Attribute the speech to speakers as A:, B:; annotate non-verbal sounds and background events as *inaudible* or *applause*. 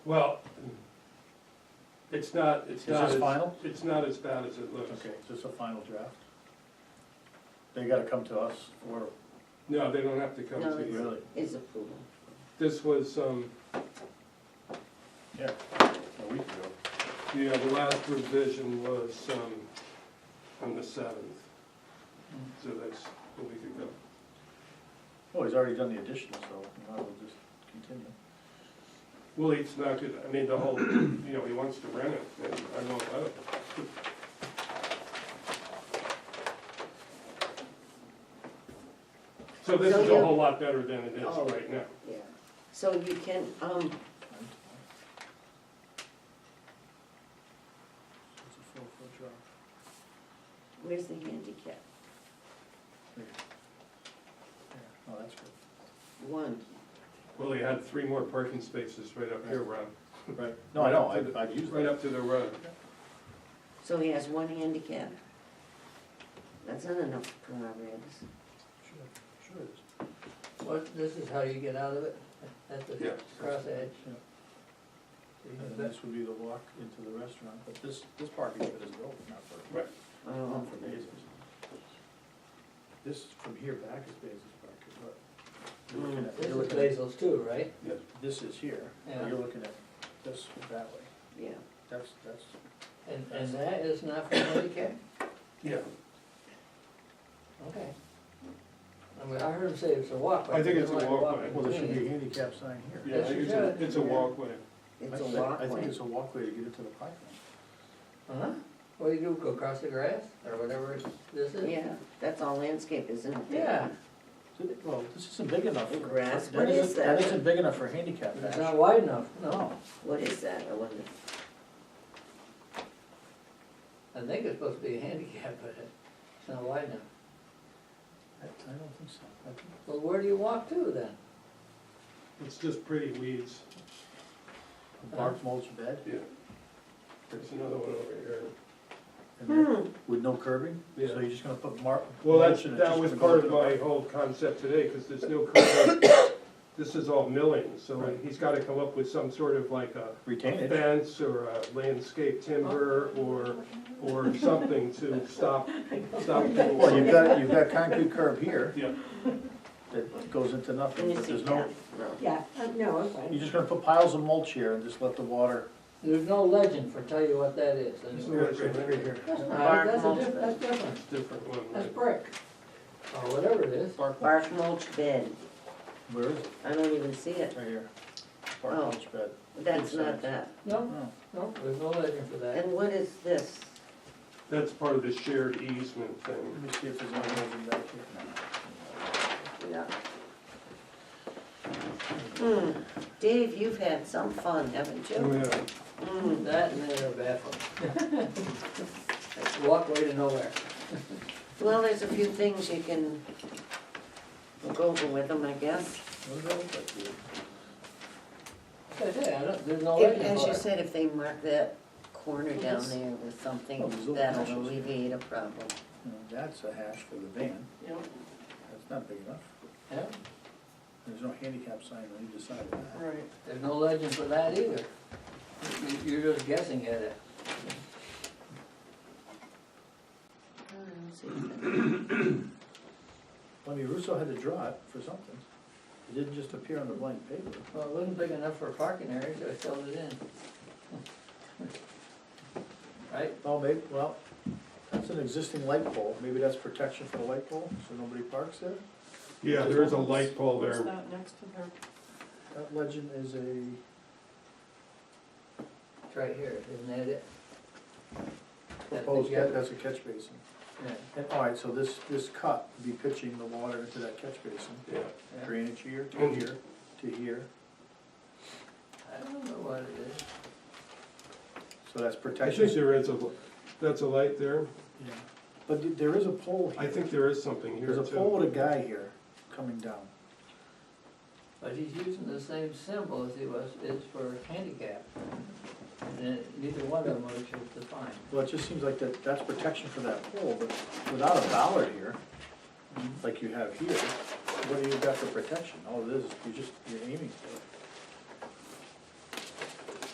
A: Well, it's not, it's
B: Is
A: not.
B: this
A: as-
B: final?
A: It's not as bad as it looks.
B: Okay, is this a final draft? They gotta come to us for,
A: No, they don't have to come
C: No,
A: to you.
B: really,
C: is approval.
A: This was, um,
B: a week ago.
A: you know, the last revision was, um, on the seventh. So that's a week ago.
B: Oh, he's already done the additional, so we might as well just continue.
A: Well, it's not good, I mean, the whole, you know, he wants to rent it, and I won't let him. So this is a whole lot better than it is right now.
C: Yeah. So you can, um,
B: It's a four-foot drop.
C: where's the handicap?
B: Oh, that's good.
C: One.
A: Well, he had three more parking spaces right up here, Rob,
B: Right, no, I know, I've, I've used
A: right
B: that.
A: up to the road.
C: So he has one handicap. That's not enough Paragraphs.
B: Sure, sure it is.
D: What, this is how you get out of it, *laughs* at the
A: Yeah.
D: cross edge?
B: Yeah. And then
D: That's
B: this would be the walk into the restaurant, but this, this parking bit is built, not for,
A: Right.
C: Oh,
B: not for bases. This from here back is Basil's parking, but you're looking at, you're
D: This is
B: looking at,
D: Basil's too, right?
B: this is here,
D: Yeah.
B: and you're looking at this that way.
C: yeah.
B: That's, that's,
D: And, and that is not for handicap?
A: Yeah,
D: Okay. I mean, I heard him say it's a walkway.
A: I think it's a
D: like
A: walkway.
B: well, there should be a handicap sign here.
A: yeah, I think it's a, it's a walkway.
C: It's a
B: I thi- I think
C: walkway.
B: it's a walkway to get into the parking.
D: Huh? Uh-huh. What do you do, go across the grass, or whatever this is?
C: Yeah, that's all landscape, isn't it?
D: Yeah,
B: Did it- Well, this isn't big enough.
C: The
B: for-
C: grass,
B: that
C: what
B: isn't-
C: is
B: That
C: that?
B: isn't big enough for handicap
D: it's not
B: actually.
D: wide enough, no.
C: What is that, I wonder?
D: I think it's supposed to be a handicap, *laughs* but it's not wide enough.
B: I I don't think so. I think-
D: Well, where do you walk to then?
A: It's just pretty weeds.
B: a Bark mulch bed
A: Yeah. There's another one over here.
B: and
C: Hmm.
B: then- with no curbing, so
A: Yeah.
B: you're just gonna put mark.
A: Well, that's,
B: mulch and it's
A: that
B: just
A: was
B: gonna go
A: part
B: into
A: of
B: the
A: my
B: park.
A: whole concept today, because there's no curb. cut. *coughs* This is all milling, so
B: Right.
A: he's gotta come up with some sort of like a
B: Retainage,
A: fence or a landscape timber or, or something to stop, stop people.
B: well, you've
A: from-
B: got, you've
C: *laughs*
B: got concrete curb here
A: Yeah,
B: that goes into nothing, but
C: Let me
B: there's
C: see.
B: no,
E: Yeah, uh, no, I'm fine.
B: you're just gonna put piles of mulch here and just let the water.
D: There's no legend for tell you what that is. That's
A: Yeah, it's right
B: here.
C: Bark
D: not, that's a
C: mulch
D: diff,
C: bed.
D: that's different.
A: it's a different one.
D: That's
A: right?
D: brick, or whatever it is.
B: Bark, mulch.
C: Bark mulch bed.
B: where is it?
C: I don't even see it.
B: Right here. Bark
C: Oh.
B: mulch bed.
C: That's
B: Good
C: not
B: size.
C: that.
D: No,
B: Oh,
D: no, there's no legend for that.
C: And what is this?
A: That's part of the shared easement thing.
B: Let me see if there's any moving back here.
C: Yeah. Hmm, Dave, you've had some fun, haven't you?
A: Yeah.
C: Hmm,
D: That and then a bathroom. *laughs* Walkway to nowhere.
C: well, there's a few things you can go over with them, I guess.
B: What does that look like here?
D: That's it, I don't, there's no
C: If-
D: legend
C: As
D: for
C: you
D: it.
C: said, if they mark that corner down there with
B: Oh,
C: something,
B: these little
C: that'll
B: hashes.
C: alleviate a problem.
B: Now, That's a hash for the van, that's not big enough.
D: Yeah,
B: There's no handicap sign on either side of that.
C: Right.
D: there's no legend for that either. You- You're just guessing at it.
C: Uh,
B: I mean, Russo had to draw it for something. It didn't just appear on the blank paper.
D: Well, it wasn't big enough for a parking area, so I filled it in. *laughs* Right?
B: Well, maybe, well, that's an existing light pole, maybe that's protection for the light pole, so nobody parks there?
A: Yeah, there is a light pole
E: What's
A: there.
E: that next to their
B: That legend is a,
D: It's right here, isn't that it? That
B: oh,
D: big yellow-
B: that's a catch basin.
D: yeah,
B: And, all right, so this, this cut would be pitching the water into that catch basin,
A: Yeah.
D: yeah.
B: drainage here, to
A: Oh.
B: here, to here,
D: I don't know what it is.
B: so that's
A: I think
B: protection.
A: there is a, that's a light there.
B: Yeah. But th- there is a pole
A: I
B: here,
A: think there is something here
B: there's a
A: too.
B: pole with a guy here coming down.
D: But he's using the same symbol as he was, is for handicap. And neither one of them was defined.
B: Well, it just seems like that, that's protection for that pole, but without a bollard here, like you have here, what do you got for protection? All it is, you just, you're aiming for it.